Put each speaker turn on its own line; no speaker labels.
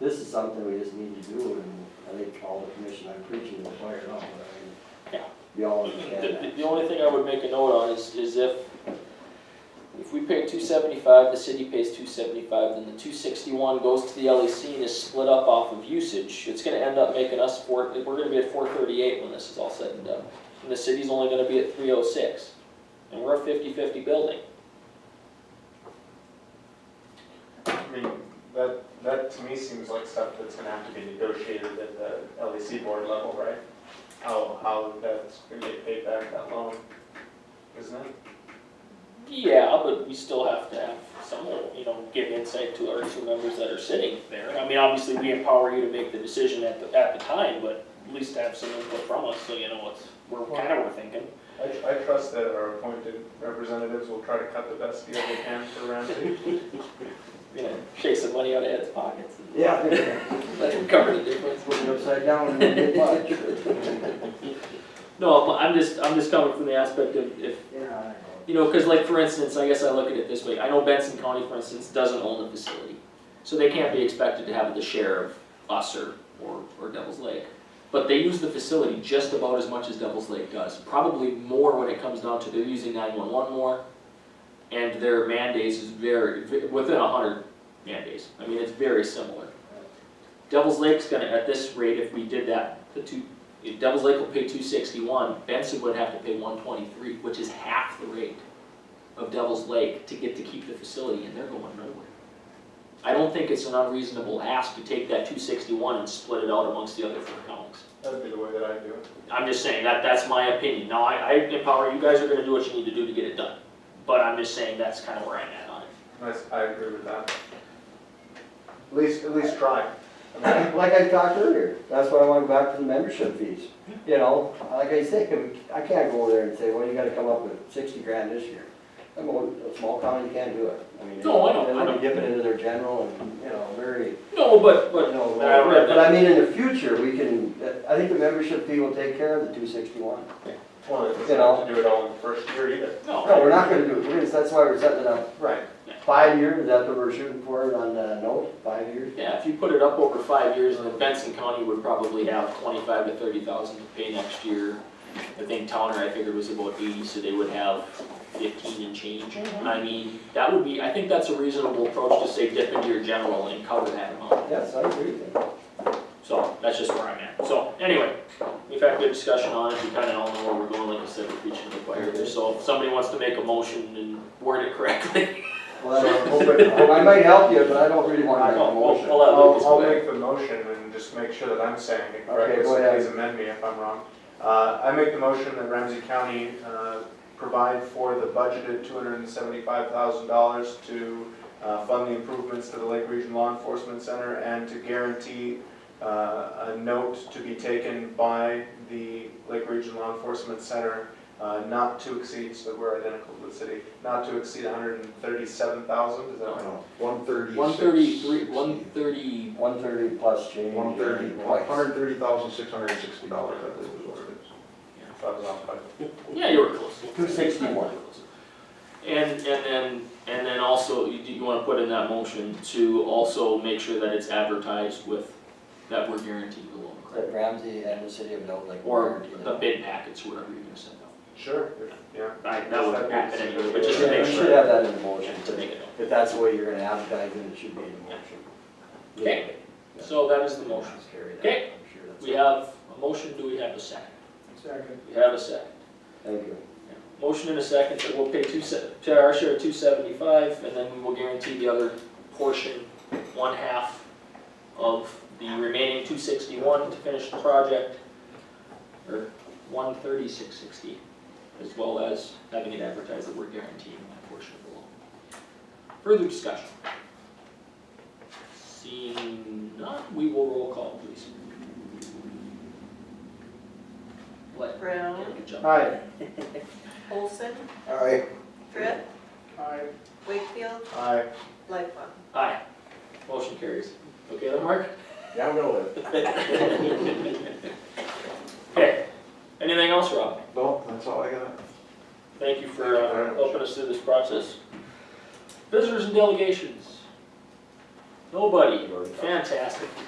this is something we just need to do, and I think all the commission, I'm preaching to the choir now, but I mean,
Yeah.
we all
The,
understand
the- the only thing I would make a note on is, is if, if we pay two seventy-five, the city pays two seventy-five, then the two sixty-one goes to the LEC and is split up off of usage. It's gonna end up making us four, we're gonna be at four thirty-eight when this is all said and done. And the city's only gonna be at three oh six, and we're a fifty-fifty building.
I mean, that, that to me seems like stuff that's gonna have to be negotiated at the LEC board level, right? How, how that's gonna get paid back that loan, isn't it?
Yeah, but we still have to have someone, you know, give insight to our two members that are sitting there. I mean, obviously, we empower you to make the decision at the, at the time, but at least have some input from us, so you know what's, we're kind of, we're thinking.
I, I trust that our appointed representatives will try to cut the best deal they can for round two.
You know, shake some money out of Ed's pockets and
that. Yeah,
let him cover the difference.
putting it upside down and then much.
No, I'm just, I'm just coming from the aspect of if,
Yeah,
You know, because like for instance, I guess I look at it this way. I know Benson County, for instance, doesn't own the facility, so they can't be expected to have the share of us or or, or Devil's Lake. But they use the facility just about as much as Devil's Lake does. Probably more when it comes down to they're using nine one one more, and their mandates is very vi- within a hundred mandates. I mean, it's very similar. Devil's Lake's gonna at this rate, if we did that, the two. If Devil's Lake will pay two sixty-one, Benson would have to pay one twenty-three, which is half the rate of Devil's Lake to get to keep the facility, and they're going nowhere. I don't think it's an unreasonable ask to take that two sixty-one and split it out amongst the other four counties.
That'd be the way that I do it.
I'm just saying, that, that's my opinion, now, I, I empower, you guys are gonna do what you need to do to get it done, but I'm just saying, that's kinda where I'm at on it.
That's, I agree with that. At least, at least try. I mean,
Like I talked earlier, that's why I want to go back to the membership fees, you know, like I say, I can't go over there and say, well, you gotta come up with sixty grand this year. I'm going, a small county, you can't do it, I mean.
No, I know, I
They're
know.
gonna dip it into their general and, you know, very.
No, but,
But
but,
no,
I read
But I mean, in the future, we can, I think the membership fee will take care of the two sixty-one.
Well, it doesn't have to do it all in the first year either.
No,
no,
we're not gonna do it, we're gonna, that's why we're setting it up,
Right.
five years, is that what we're shooting for on the note, five years?
yeah, if you put it up over five years, then Benson County would probably have twenty-five to thirty thousand to pay next year. I think Towner, I figured was about eighty, so they would have fifteen and change. I mean, that would be, I think that's a reasonable approach to say dip into your general and cover that amount.
Yes, I agree with you.
So that's just where I'm at. So anyway, we've had a good discussion on it. We kind of all know where we're going. Like I said, we're preaching to the choir here. So if somebody wants to make a motion and word it correctly,
Well, I don't hope it- I might help you, but I don't really wanna
I'll,
make a
I'll
motion.
allow Lucas
I'll, I'll
go ahead.
make the motion and just make sure that I'm saying it correctly,
Okay, go
so
ahead.
please amend me if I'm wrong. Uh, I make the motion that Ramsey County, uh, provide for the budgeted two hundred and seventy-five thousand dollars to, uh, fund the improvements to the Lake Region Law Enforcement Center and to guarantee, uh, a note to be taken by the Lake Region Law Enforcement Center, uh, not to exceed, so we're identical to the city, not to exceed $137,000. is that right?
One thirty.
One thirty-three, one thirty,
One thirty plus change.
One thirty, one
Twice.
hundred thirty thousand, six hundred and sixty dollars, I believe is what it is.
If I was off by
yeah, you were close.
261.
And, and then, and then also, you, you wanna put in that motion to also make sure that it's advertised with, that we're guaranteed the loan, correct?
That Ramsey and the city of Dell Lake.
Or the bid packets, whatever you're gonna send out.
Sure, yeah.
Right, that would happen anyway, but just to
Yeah,
make
we should
sure,
have that in the motion,
to make it known.
if that's the way you're gonna advertise it, it should be in the motion.
Okay. So that is the motion. Okay. We have a motion, do we have a second? Second. We have a second.
Thank you.
Motion in a second that we'll pay two se- to our share of two seventy-five, and then we will guarantee the other portion, one half of the remaining two sixty-one to finish the project, or one thirty-six sixty, as well as having it advertised that we're guaranteeing that portion of the loan. Further discussion? Seeing none, we will roll call, please. What?
Brown,
Good job.
Hi.
Olson,
All right.
Tripp,
Aye.
Wakefield,
Aye.
Lightfoot.
Aye. Motion carries. Okay then, Mark?
Yeah, I'm gonna live.
Okay. Anything else, Rob?
Well, that's all I got.
Thank you for
Thank you very
uh,
much.
helping us through this process. Visitors and delegations. Nobody,
You already talked.
fantastic.